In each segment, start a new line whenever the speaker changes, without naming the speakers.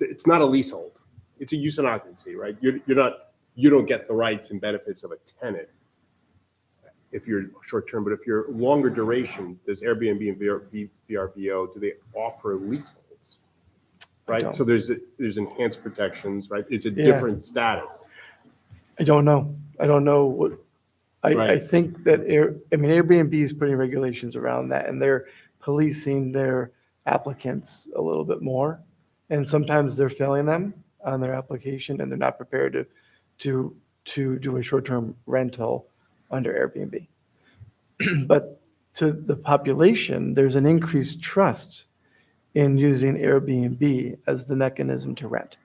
it's not a leasehold. It's a use and occupancy, right? You're, you're not, you don't get the rights and benefits of a tenant if you're short term, but if you're longer duration, does Airbnb and VR V- VRBO, do they offer leaseholds? Right?
don't.
So there's, there's enhanced protections, right? It's a
Yeah.
different status.
I don't know. I don't know what, I, I
Right.
think that Air, I mean, Airbnb is putting regulations around that and they're policing their applicants a little bit more. And sometimes they're failing them on their application and they're not prepared to, to, to do a short-term rental under Airbnb. But to the population, there's an increased trust in using Airbnb as the mechanism to rent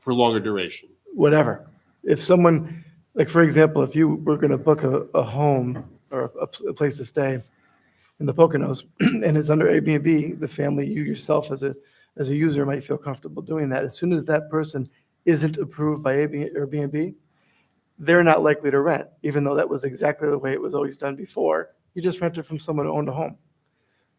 For longer duration.
whatever. If someone, like for example, if you were going to book a, a home or a, a place to stay in the Poconos and it's under Airbnb, the family, you yourself as a, as a user might feel comfortable doing that. As soon as that person isn't approved by Airbnb- Airbnb, they're not likely to rent, even though that was exactly the way it was always done before. You just rented from someone who owned a home.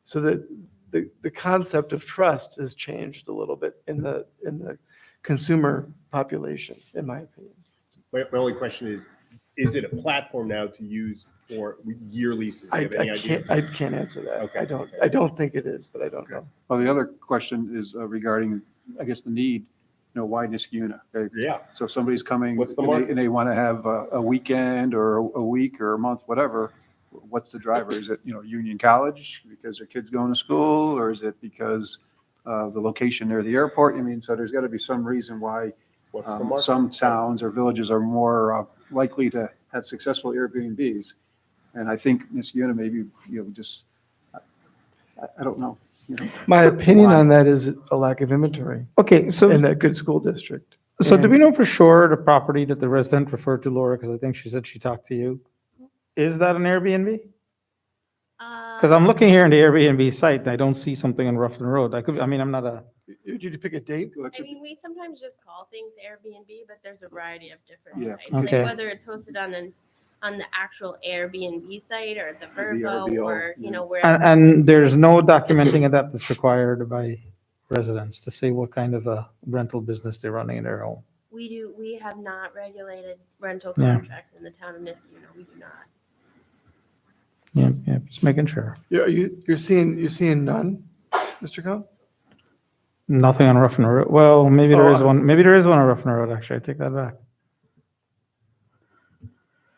So that the, the concept of trust has changed a little bit in the, in the consumer population, in my opinion.
My, my only question is, is it a platform now to use for year leases? Do
I,
you have any
I
idea?
can't, I can't answer that.
Okay,
I don't,
okay.
I don't think it is, but I don't know.
Well, the other question is uh, regarding, I guess, the need, you know, why Niskuna? Okay,
Yeah,
So if somebody's coming.
What's the
and they-
market?
And they want to have a, a weekend or a week or a month, whatever, what's the driver? Is it, you know, Union College because their kid's going to school? Or is it because uh, the location near the airport? I mean, so there's got to be some reason why
what's the
um,
market?
some towns or villages are more uh, likely to have successful Airbnbs. And I think Niskuna maybe, you know, just, I, I don't know. you know.
My opinion
Why?
on that is a lack of inventory
Okay,
in
so,
that good school district.
so do
And
we know for sure the property that the resident referred to Laura, because I think she said she talked to you? Is that an Airbnb?
Um,
Because I'm looking here in the Airbnb site and I don't see something on Ruffin Road. I could, I mean, I'm not a,
Did you pick a date?
Electric
I mean, we sometimes just call things Airbnb, but there's a variety of
Yeah.
different sites. Like
Okay.
whether it's hosted on an, on the actual Airbnb site or the Verbo
VRBO,
or, you
yeah.
know, wherever.
and, and there's no documenting of that that's required by residents to say what kind of a rental business they're running in their home.
We do, we have not regulated rental
Yeah.
contracts in the town of Niskuna. We do not.
Yeah, yeah, just making sure.
You're, you- you're seeing, you're seeing none, Mr. Cohen?
Nothing on Ruffin Road. Well, maybe there is
Oh, I-
one, maybe there is one on Ruffin Road, actually. I take that back.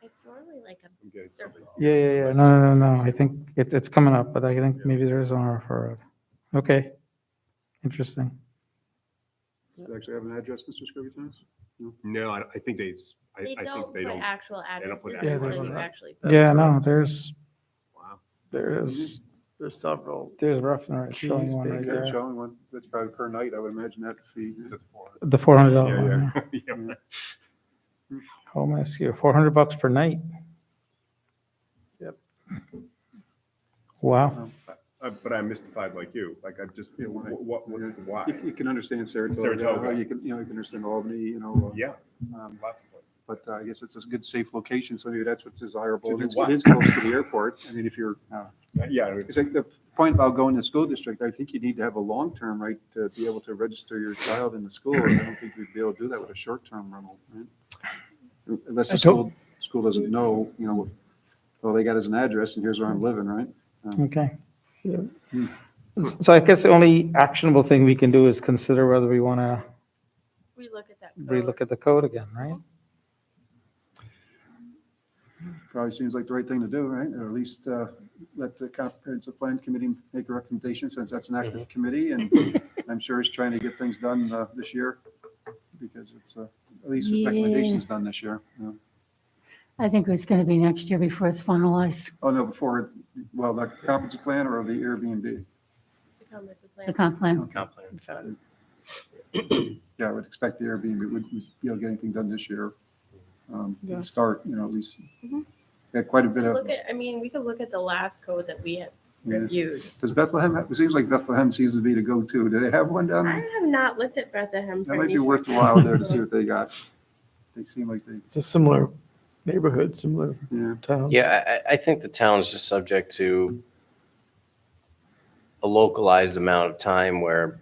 It's normally like a
I'm getting something off.
Yeah, yeah, yeah. No, no, no, no. I think it, it's coming up, but I think maybe there is one on Ruffin Road. Okay. Interesting.
Does it actually have an address, Mr. Scrivett?
No, I, I think they, s- I,
They
I
don't
think they
put
don't.
actual
don't put
addresses
actual
until you
addresses.
actually.
That's
Yeah, no,
correct.
there's,
Wow.
there is,
There's several.
there's Ruffin Road showing
Keys,
one right
Baker,
They're
there.
showing one, that's probably per night, I would imagine that fee.
Is it four?
The four hundred
Yeah,
dollar one. yeah.
yeah. Yeah.
Home SEO, four hundred bucks per night.
Yep.
Wow.
Um,
Uh, But I'm mystified like you, like I just,
Yeah, why?
what, what's the why?
You you can understand Saratoga,
Saratoga.
you can, you know, you can understand Albany, you know,
Yeah,
uh, um,
lots of places.
but uh, I guess it's a good, safe location, so maybe that's what's desirable.
To
And
do
it's-
what? Oh.
It is close to the airport, I mean, if you're, uh,
Yeah, I mean,
it's like the point about going to school district, I think you need to have a long-term right to be able to register your child in the school, and I don't think we'd be able to do that with a short-term rental, right? Unless the
I don't-
school, school doesn't know, you know, all they got is an address, and here's where I'm living, right?
Okay.
Yeah.
Hmm.
So I guess the only actionable thing we can do is consider whether we want to
We look at that.
relook at the code again, right?
Probably seems like the right thing to do, right? Or at least uh, let the comprehensive plan committee make a recommendation since that's an active committee and I'm sure it's trying to get things done uh, this year because it's, uh, at least the
Yeah.
recommendation's done this year. you know.
I think it's going to be next year before it's finalized,
Oh, no, before, well, the comprehensive plan or the Airbnb?
the comprehensive
the
plan.
comp plan.
Yeah, I would expect the Airbnb would, would be able to get anything done this year. um, to Start, you know, at least.
Mhm.
Got quite a
We
bit
could
of,
Look at, I mean, we could look at the last code that we have
Yeah.
reviewed.
does Bethlehem, it seems like Bethlehem seems to be the go-to. Do they have one down
I
there?
have not looked at Bethlehem. for
That might
any
be worth a
short-term
while there to see
rental.
what they got. They seem like they,
It's a similar neighborhood, similar
yeah.
town.
Yeah, I- I, I think the town is just subject to a localized amount of time where